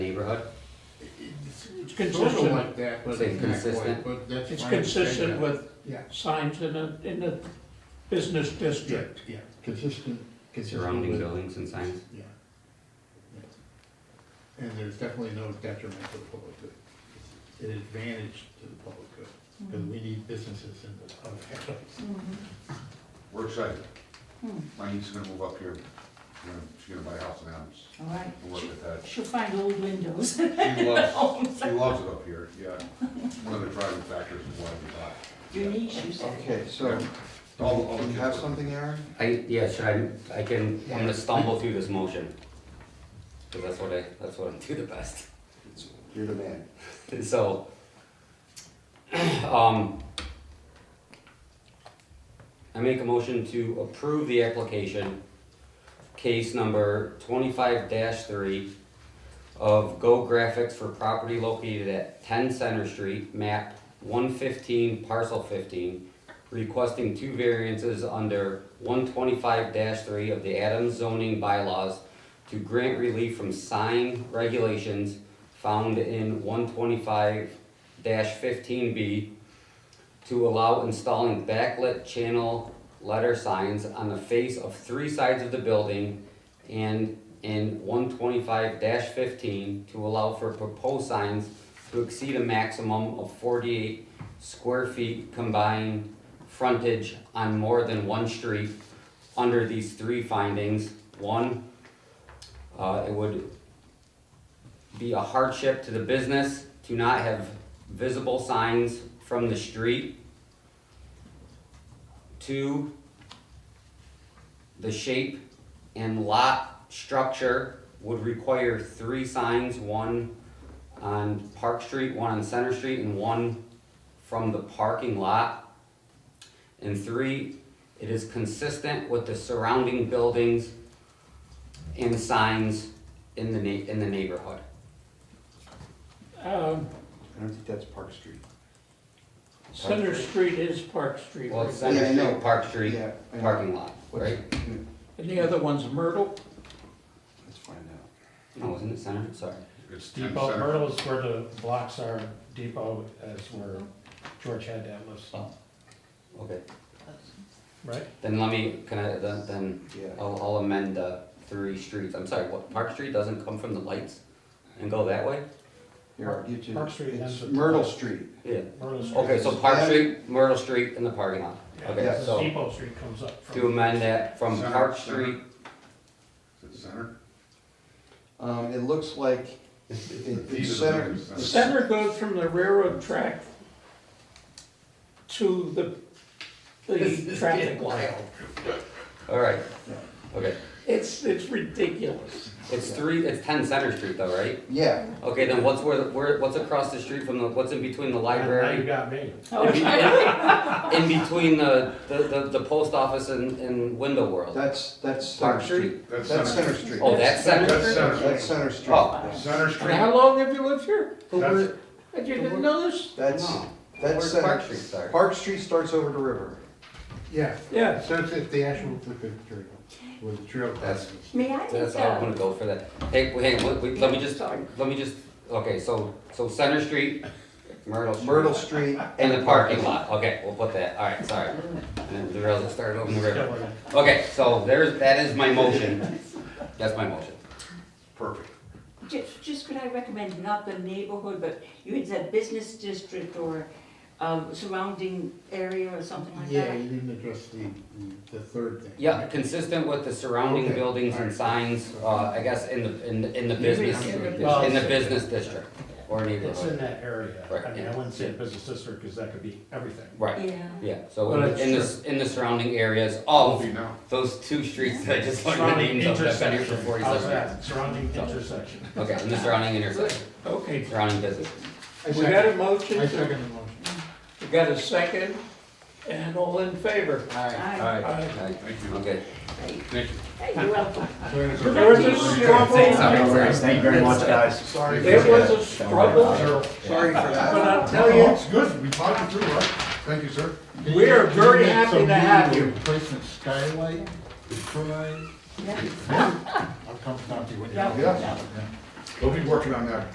neighborhood? It's it's Consistent. sort of like that, Was but it not consistent? quite, but that's. It's my understanding consistent of it. with Yeah, signs in the, in the business yeah, district. yeah, consistent, consistent Surrounding with, buildings and signs? yeah. Yeah. And there's definitely no detriment to the public good. It's an advantage to the public good, because we need businesses in the town. We're excited. Hmm. My niece is gonna move up here. She's gonna- She's gonna buy a house in Adams. All right. We'll work with that. She'll find old windows. She loves, Homes. she loves it up here, yeah. One of the driving factors is why we buy. Your niece, you said. Okay, so, All- all the do Oh, you have something, Aaron? I, yeah, should I, I can, I'm gonna stumble through this motion. Cause that's what I, that's what I do the best. You're the man. And so, um, I make a motion to approve the application, case number twenty-five three of Go Graphics for property located at ten Center Street, map one fifteen, parcel fifteen, requesting two variances under one twenty-five three of the Adams zoning bylaws to grant relief from sign regulations found in one twenty-five fifteen B to allow installing backlit channel letter signs on the face of three sides of the building and in one twenty-five fifteen to allow for proposed signs to exceed a maximum of forty-eight square feet combined frontage on more than one street under these three findings. One, uh, it would be a hardship to the business to not have visible signs from the street. Two, the shape and lot structure would require three signs, one on Park Street, one on Center Street, and one from the parking lot. And three, it is consistent with the surrounding buildings and signs in the na- in the neighborhood. Um, I don't think that's Park Street. Center Street is Park Street, Well, it's right? Center Yeah, I know. Street, Park Street, Yeah, I know. parking lot, What's- right? and the other one's Myrtle. Let's find out. No, isn't it Center? Sorry. It's ten Depot, center. Myrtle's where the blocks are, Depot is where George had that list, Okay. right? Then let me, can I, then, then Yeah, I'll, I'll amend the three streets. I'm sorry, what, Park Street doesn't come from the lights and go that way? here, I'll get you. Park Street It's ends with- Myrtle Street. Yeah. Myrtle Street. Okay, so is- Park Street, Myrtle Street, and the parking lot. Yeah, Okay, so so Depot Street comes up from. to amend that from Center, Park center. Street, Is it center? Um, it looks like it- it's These are center. the it's- Center goes from the railroad track to the, the traffic light. all right. Okay, It's, it's ridiculous. it's three, it's ten Center Street though, right? Yeah, Okay, then what's where, the- where, what's across the street from the, what's in between the Now you library? got me. In be- In between the, the, the, the post office and, and Window World? that's, that's. Park Center Street? That's That's center. Center Street. Oh, that's Center That's Street? center. That's Center Street. Oh. Yeah. Center And Street, how long have you lived here? Who were, I didn't know this. That's, no, where's that's Park Center. Street, sorry? Park Street starts over to River. Yeah, Yeah. so it's at the actual, Crooked trail, where the trail. That's- crosses. May I make That's, I'm gonna a, go for that. Hey, wait, hey, wait, wait, let me just, Sorry. let me just, okay, so, so Center Street, Myrtle Street. Myrtle Street. And the parking lot, okay, we'll put that, all right, sorry. And then the rails will start over the river. Still in it. Okay, so there's, that is my motion. That's my motion. perfect. ju- just could I recommend not the neighborhood, but you had said business district or um, surrounding area or something like Yeah, that? you didn't address the, the- the third thing. Yeah, consistent with the surrounding Okay, buildings and alright. signs, uh, I guess, in the, in, the- in the business, in the Well, in the business district or It's in neighborhood. that area. Right, I mean, yeah. I wouldn't say a business district, because that could be everything. Right, Yeah. yeah, so in Well, the, that's in the, s- in the surrounding areas of Be now. those two streets that I just learned the Surrounding names of, I've been here for intersection. How's forty-seven years. that? Surrounding intersection. Okay, in the surrounding intersection, Okay. surrounding business. I We got a second, motion, I second the motion. we got a second, and all in favor? Aye. Aye. Okay, Thank you. Okay. Thank you. Hey, you're welcome. There was a struggle, Say something first. Thank you very much, guys. Sorry. for there was that. a struggle, Sorry for that. but I'll Tell tell you, you, it's good, we talked it through, right? Thank you, sir. We are very happy to have you. Replacement skylight, skylight. Yeah. I'll come talk to you when you're. Yeah. out. We'll be working on that.